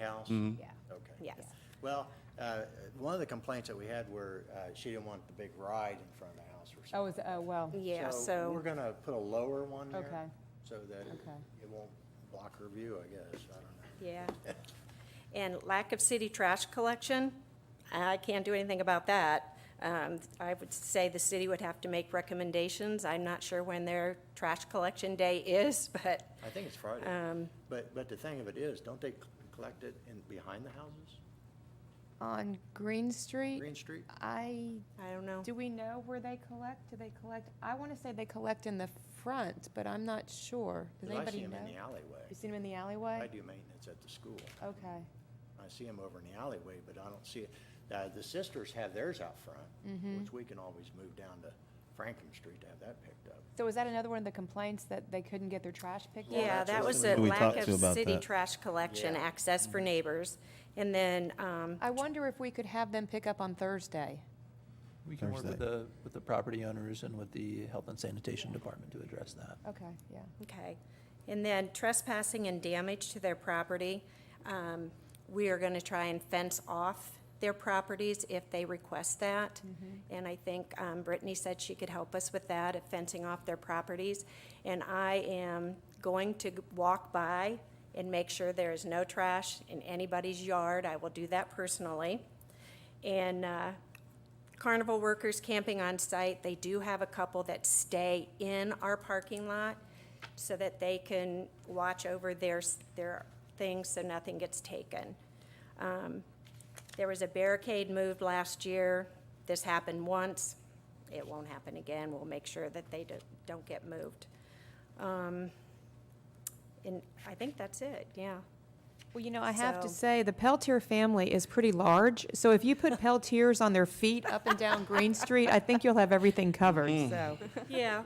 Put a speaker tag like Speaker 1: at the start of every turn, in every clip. Speaker 1: house?
Speaker 2: Mm-hmm.
Speaker 3: Yeah,
Speaker 1: Okay.
Speaker 3: yes.
Speaker 1: Well, uh, one of the complaints that we had were, uh, she didn't want the big ride in front of the house or
Speaker 4: Oh,
Speaker 1: something.
Speaker 4: is, oh, well,
Speaker 3: Yeah,
Speaker 1: We're
Speaker 3: so,
Speaker 1: gonna put a lower one there.
Speaker 4: Okay.
Speaker 1: So that it-
Speaker 4: Okay.
Speaker 1: it won't block her view, I guess, I don't know.
Speaker 3: yeah. And lack of city trash collection, I can't do anything about that. Um, I would say the city would have to make recommendations. I'm not sure when their trash collection day is, but um,
Speaker 1: I think it's
Speaker 3: Uh,
Speaker 1: Friday. But, but the thing of it is, don't they c- collect it in, behind the houses?
Speaker 2: On Green Street,
Speaker 1: Green Street?
Speaker 2: I,
Speaker 3: I don't know.
Speaker 2: do we know where they collect? Do they collect? I want to say they collect in the front, but I'm not sure. Does
Speaker 1: 'Cause I see
Speaker 2: anybody
Speaker 1: them
Speaker 2: know?
Speaker 1: in the alleyway.
Speaker 2: You seen them in the
Speaker 1: I
Speaker 2: alleyway?
Speaker 1: do maintenance at the school.
Speaker 2: Okay.
Speaker 1: I see them over in the alleyway, but I don't see it. Uh, the sisters have theirs out front,
Speaker 2: Mm-hmm.
Speaker 1: which we can always move down to Franklin Street to have that picked up.
Speaker 4: So is that another one of the complaints that they couldn't get their trash picked up?
Speaker 3: Yeah,
Speaker 1: that's
Speaker 3: that
Speaker 1: what
Speaker 3: was
Speaker 1: we-
Speaker 3: a
Speaker 5: We
Speaker 3: lack
Speaker 5: talked
Speaker 3: of
Speaker 5: to about
Speaker 3: city
Speaker 5: that. Mm-hmm.
Speaker 3: trash collection,
Speaker 1: Yeah.
Speaker 3: access for neighbors. And then, um,
Speaker 2: I wonder if we could have them pick up on Thursday.
Speaker 6: We can work with
Speaker 5: Thursday.
Speaker 6: the, with the property owners and with the health and sanitation department to address that.
Speaker 2: Okay, yeah.
Speaker 3: Okay. And then trespassing and damage to their property, um, we are going to try and fence off their properties if they request that. And I think um, Brittany said she could help us with that, of fencing off their properties. And I am going to walk by and make sure there is no trash in anybody's yard. I will do that personally. And uh, carnival workers camping on site, they do have a couple that stay in our parking lot so that they can watch over their, their things so nothing gets taken. Um, There was a barricade moved last year. This happened once. It won't happen again. We'll make sure that they don't- don't get moved. Um, And I think that's it, yeah.
Speaker 2: Well, you know, I have to
Speaker 3: So-
Speaker 2: say, the Peltier family is pretty large, so if you put Peltiers on their feet up and down Green Street, I think you'll have everything covered,
Speaker 1: Mm.
Speaker 2: so.
Speaker 3: Yeah,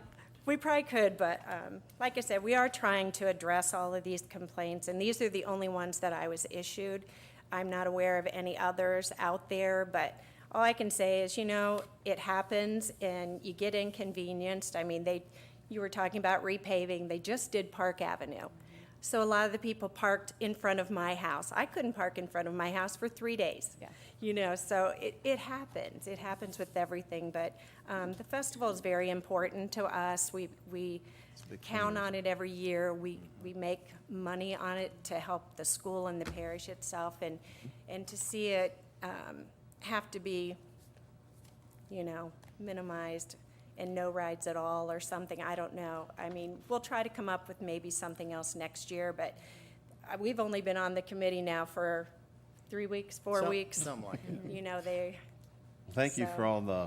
Speaker 3: we probably could, but um, like I said, we are trying to address all of these complaints, and these are the only ones that I was issued. I'm not aware of any others out there, but all I can say is, you know, it happens, and you get inconvenienced. I mean, they, you were talking about repaving, they just did Park Avenue. So a lot of the people parked in front of my house. I couldn't park in front of my house for three days.
Speaker 2: Yeah.
Speaker 3: You know, so it, it happens. It happens with everything, but um, the festival is very important to us. We, we count on it every year. We, we make money on it to help the school and the parish itself, and, and to see it um, have to be you know, minimized and no rides at all or something, I don't know. I mean, we'll try to come up with maybe something else next year, but uh, we've only been on the committee now for three weeks, four
Speaker 1: Some-
Speaker 3: weeks.
Speaker 1: Something like that.
Speaker 3: You know, they,
Speaker 5: Thank you for
Speaker 3: So-
Speaker 5: all the,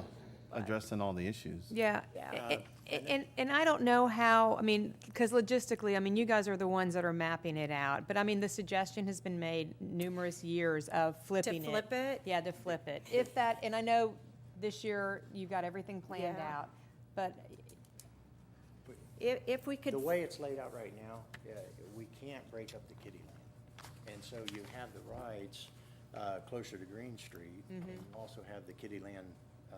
Speaker 5: addressing all the issues.
Speaker 2: Yeah,
Speaker 3: Yeah.
Speaker 1: Um,
Speaker 2: a- a- and, and I don't know how, I mean, because logistically, I mean, you guys are the ones that are mapping it out, but I mean, the suggestion has been made numerous years of flipping it.
Speaker 3: flip it?
Speaker 2: Yeah, to flip it. If that, and I know this year you've got everything planned
Speaker 3: Yeah.
Speaker 2: out, but
Speaker 3: if, if we could,
Speaker 1: The way it's laid out right now, uh, we can't break up the kiddie lane. And so you have the rides uh, closer to Green Street, and
Speaker 2: Mm-hmm.
Speaker 1: you also have the kiddie land um,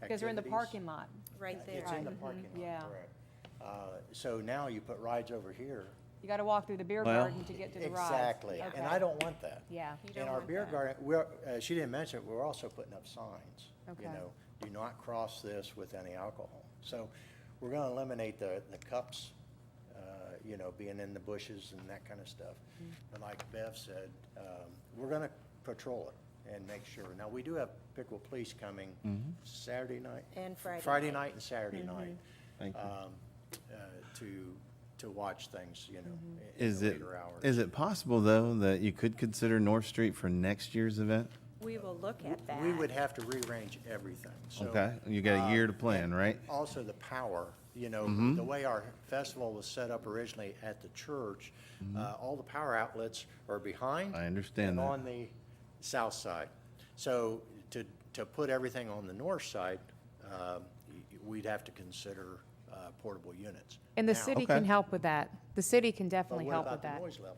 Speaker 1: activities.
Speaker 2: because they're in the parking lot. Mm-hmm.
Speaker 3: right there.
Speaker 1: It's in the parking
Speaker 2: yeah.
Speaker 1: lot, correct. Uh, So now you put rides over here.
Speaker 2: You got to walk through the beer
Speaker 5: Well-
Speaker 2: garden to get to the rides.
Speaker 1: Exactly, and I
Speaker 2: Okay.
Speaker 1: don't want that.
Speaker 2: Yeah.
Speaker 3: You don't
Speaker 1: And our
Speaker 3: want
Speaker 1: beer
Speaker 3: that.
Speaker 1: garden, we're, uh, she didn't mention, it, we're also putting up signs, you
Speaker 2: Okay.
Speaker 1: know, do not cross this with any alcohol. So we're gonna eliminate the, the cups, uh, you know, being in the bushes and that kind of stuff.
Speaker 3: Mm-hmm.
Speaker 1: And like Bev said, um, we're gonna patrol it and make sure. Now, we do have pickle police coming
Speaker 5: Mm-hmm.
Speaker 1: Saturday night.
Speaker 3: And Friday
Speaker 1: Friday
Speaker 3: night. Mm-hmm.
Speaker 1: night and Saturday night.
Speaker 5: Thank you.
Speaker 1: um, uh, To, to watch things, you know. in
Speaker 3: Mm-hmm.
Speaker 1: the
Speaker 5: Is it,
Speaker 1: later hours.
Speaker 5: is it possible, though, that you could consider North Street for next year's event?
Speaker 3: We will look at that.
Speaker 1: We would have to rearrange everything, so. uh,
Speaker 5: Okay, you got a year to plan, right? Mm-hmm.
Speaker 1: Also, the power, you know, the way our festival was set up originally at the church, uh, all the power outlets are behind.
Speaker 5: Mm-hmm. I understand
Speaker 1: and
Speaker 5: that.
Speaker 1: On the south side. So to, to put everything on the north side, um, y- y- we'd have to consider uh, portable units.
Speaker 2: And the
Speaker 1: Now,
Speaker 2: city
Speaker 5: Okay.
Speaker 2: can help with that. The city can
Speaker 1: but
Speaker 2: definitely
Speaker 1: what
Speaker 2: help
Speaker 1: about
Speaker 2: with
Speaker 1: the
Speaker 2: that.
Speaker 1: noise levels?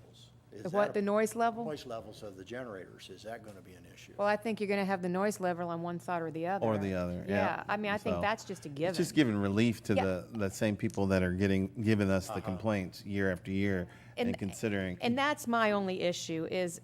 Speaker 1: Is
Speaker 2: The
Speaker 1: that
Speaker 2: what,
Speaker 1: a-
Speaker 2: the noise level?
Speaker 1: Noise levels of the generators, is that going to be an issue?
Speaker 2: Well, I think you're going to have the noise level on one side or the other.
Speaker 5: Or the other, yeah.
Speaker 2: I mean, I think
Speaker 5: So,
Speaker 2: that's just a
Speaker 5: It's
Speaker 2: given.
Speaker 5: just giving relief to
Speaker 2: Yeah.
Speaker 5: the, the same people that are getting,
Speaker 1: Uh-huh.
Speaker 5: giving us the complaints year after year and considering.
Speaker 2: And that's my only issue is